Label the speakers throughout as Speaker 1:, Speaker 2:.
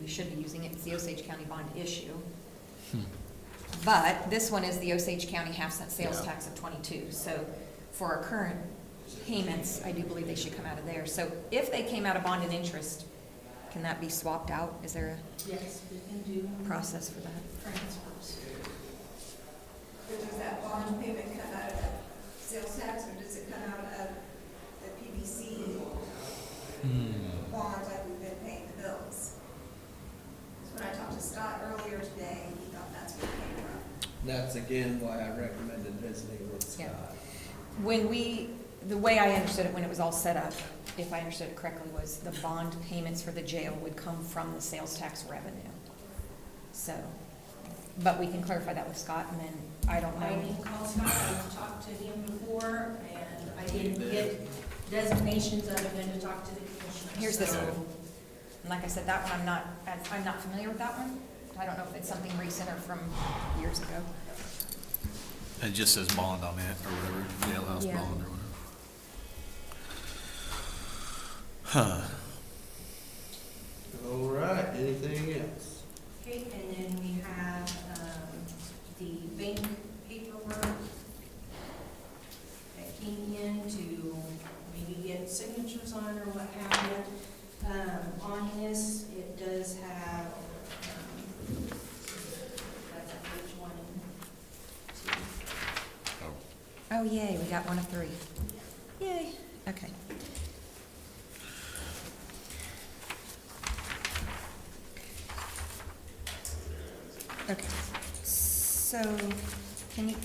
Speaker 1: we should be using it, it's the Osage County bond issue. But this one is the Osage County half cent sales
Speaker 2: Yeah.
Speaker 1: tax of twenty-two, so for our current payments, I do believe they should come out of there. So if they came out of bond and interest, can that be swapped out? Is there
Speaker 3: Yes, we can do
Speaker 1: a process for that?
Speaker 3: transfers.
Speaker 4: But does that bond payment come out of sales tax, or does it come out of the PBC bonds like we've been paying the bills? 'Cause when I talked to Scott earlier today, he thought that's where it came from.
Speaker 5: That's again why I recommended visiting with
Speaker 1: Yeah.
Speaker 5: Scott.
Speaker 1: When we, the way I understood it when it was all set up, if I understood it correctly, was the bond payments for the jail would come from the sales tax revenue. So, but we can clarify that with Scott, and then I don't
Speaker 3: I
Speaker 1: know.
Speaker 3: didn't call Scott, I've talked to him before, and I didn't get designations other than to talk to the commissioners.
Speaker 1: Here's this
Speaker 3: So,
Speaker 1: one. And like I said, that one, I'm not, I'm not familiar with that one. I don't know if it's something recent or from years ago.
Speaker 2: It just says bond on it, or whatever, jailhouse
Speaker 1: Yeah.
Speaker 2: bond or whatever. Huh,
Speaker 5: All right, anything else?
Speaker 3: Okay, and then we have, um, the bank paperwork that came in to maybe get signatures on or what have you. Um, on this, it does have, um, that's on page one, two,
Speaker 1: Oh, yay, we got one of three. Yay, okay. Okay, so can you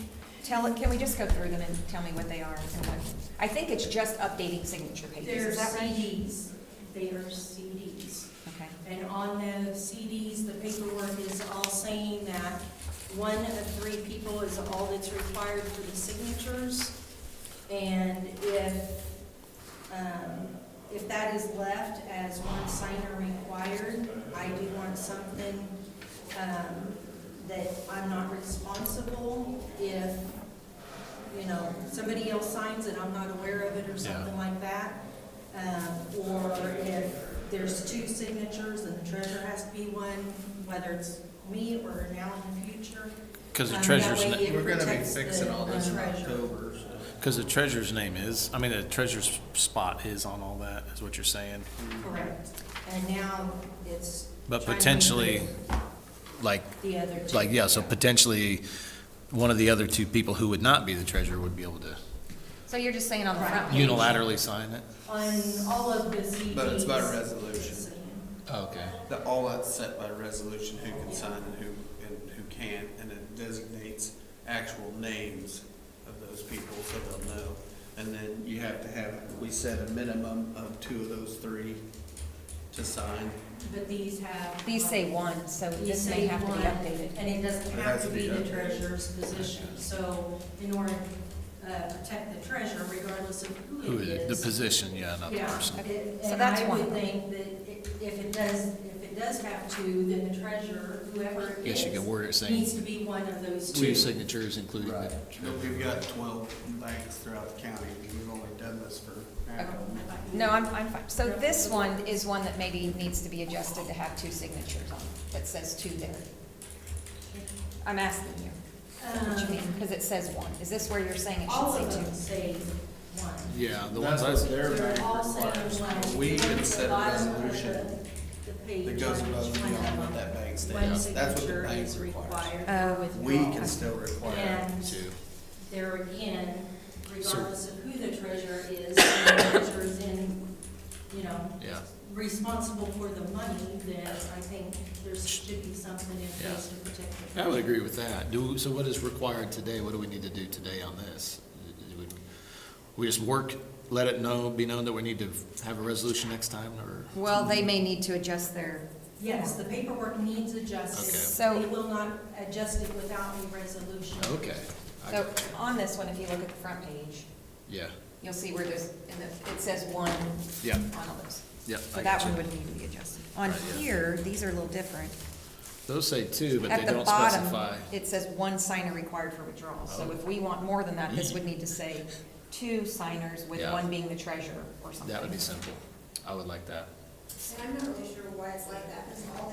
Speaker 1: tell, can we just go through them and tell me what they are and what? I think it's just updating signature pages,
Speaker 3: They're
Speaker 1: is that right?
Speaker 3: CDs, they are CDs.
Speaker 1: Okay,
Speaker 3: And on the CDs, the paperwork is all saying that one of three people is all that's required for the signatures. And if, um, if that is left as one signer required, I do want something, um, that I'm not responsible if, you know, somebody else signs and I'm not aware of it or
Speaker 2: Yeah.
Speaker 3: something like that. Um, or if there's two signatures and the treasurer has to be one, whether it's me or now in the future.
Speaker 2: cause the
Speaker 3: Um, that
Speaker 2: treasurer's,
Speaker 3: way
Speaker 2: na-
Speaker 3: it
Speaker 5: We're gonna be
Speaker 3: protects the-
Speaker 5: fixing all this
Speaker 3: the
Speaker 5: in
Speaker 3: treasurer.
Speaker 5: October, so.
Speaker 2: cause the treasurer's name is, I mean, the treasurer's spot is on all that, is what you're saying.
Speaker 3: Correct. And now it's.
Speaker 2: But
Speaker 3: trying to
Speaker 2: potentially,
Speaker 3: include
Speaker 2: like,
Speaker 3: The other two.
Speaker 2: like, yeah, so potentially, one of the other two people who would not be the treasurer would be able to
Speaker 1: so you're just saying on the front page?
Speaker 2: unilaterally sign it?
Speaker 3: On all of the CDs.
Speaker 5: But it's by
Speaker 3: it's
Speaker 5: resolution.
Speaker 3: saying-
Speaker 2: Okay.
Speaker 5: That all that's set by resolution, who can sign and who, and who can't, and it designates actual names of those people so they'll know. And then you have to have, we set a minimum of two of those three to sign.
Speaker 3: But these have.
Speaker 1: These say one, so
Speaker 3: You
Speaker 1: this may
Speaker 3: say
Speaker 1: have to be
Speaker 3: one,
Speaker 1: updated.
Speaker 3: And it doesn't
Speaker 5: It
Speaker 3: have
Speaker 5: has
Speaker 3: to
Speaker 5: to
Speaker 3: be
Speaker 5: be
Speaker 3: the
Speaker 5: updated.
Speaker 3: treasurer's position. So in order to uh, protect the treasurer regardless of
Speaker 2: Who
Speaker 3: who it
Speaker 2: is, the
Speaker 3: is.
Speaker 2: position, yeah, not the
Speaker 3: Yeah,
Speaker 2: person.
Speaker 3: it-
Speaker 1: So
Speaker 3: and
Speaker 1: that's
Speaker 3: I
Speaker 1: one.
Speaker 3: would think that it- if it does, if it does have to, then the treasurer, whoever it
Speaker 2: Guess you
Speaker 3: is,
Speaker 2: could word it
Speaker 3: needs
Speaker 2: saying
Speaker 3: to be one of those
Speaker 2: two
Speaker 3: two.
Speaker 2: signatures including the
Speaker 5: But
Speaker 2: treasurer.
Speaker 5: we've got twelve banks throughout the county, and we've only done this for half of them.
Speaker 1: No, I'm, I'm fine. So this one is one that maybe needs to be adjusted to have two signatures on it, that says two there. I'm asking you, what you mean,
Speaker 3: Um,
Speaker 1: because it says one. Is this where you're saying it
Speaker 3: All
Speaker 1: should
Speaker 3: of
Speaker 1: say
Speaker 3: them
Speaker 1: two?
Speaker 3: say one.
Speaker 2: Yeah, the ones
Speaker 5: That's
Speaker 2: I,
Speaker 5: what
Speaker 2: s-
Speaker 5: their
Speaker 3: They're
Speaker 5: bank
Speaker 3: all saying
Speaker 5: requires.
Speaker 3: one.
Speaker 5: We
Speaker 3: Even
Speaker 5: can
Speaker 3: at the
Speaker 5: set a
Speaker 3: bottom of
Speaker 5: resolution
Speaker 3: the- the page,
Speaker 5: that goes
Speaker 3: on each
Speaker 5: above and
Speaker 3: one of
Speaker 5: beyond what
Speaker 3: them,
Speaker 5: that bank
Speaker 3: One
Speaker 5: states. That's what the
Speaker 3: signature
Speaker 5: bank
Speaker 3: is
Speaker 5: requires.
Speaker 3: required.
Speaker 1: Oh.
Speaker 3: for
Speaker 5: We
Speaker 3: withdrawal.
Speaker 5: can still require.
Speaker 3: And
Speaker 2: two.
Speaker 3: there again,
Speaker 2: So-
Speaker 3: regardless of who the treasurer is, if the treasurer is in, you know,
Speaker 2: Yeah,
Speaker 3: responsible for the money, then I think there should be something in place to protect the treasurer.
Speaker 2: I would agree with that. Do, so what is required today? What do we need to do today on this? Do we- We just work, let it know, be known that we need to have a resolution next time, or?
Speaker 1: Well, they may need to adjust their,
Speaker 3: Yes, the paperwork needs adjusted.
Speaker 2: Okay.
Speaker 1: So-
Speaker 3: They will not adjust it without a resolution.
Speaker 2: Okay. I-
Speaker 1: so on this one, if you look at the front page,
Speaker 2: Yeah,
Speaker 1: you'll see where there's, in the, it says one
Speaker 2: yeah,
Speaker 1: on all those.
Speaker 2: yeah.
Speaker 1: So
Speaker 2: I
Speaker 1: that
Speaker 2: got you.
Speaker 1: one would need to be adjusted. On
Speaker 2: Right, yeah.
Speaker 1: here, these are a little different.
Speaker 2: Those say two, but
Speaker 1: At
Speaker 2: they
Speaker 1: the
Speaker 2: don't
Speaker 1: bottom,
Speaker 2: specify.
Speaker 1: it says one signer required for withdrawal. So
Speaker 2: Oh.
Speaker 1: if we want more than that, this would need to say two signers, with
Speaker 2: Yeah.
Speaker 1: one being the treasurer or something.
Speaker 2: That would be simple. I would like that.
Speaker 4: And I'm not really sure why it's like that, because all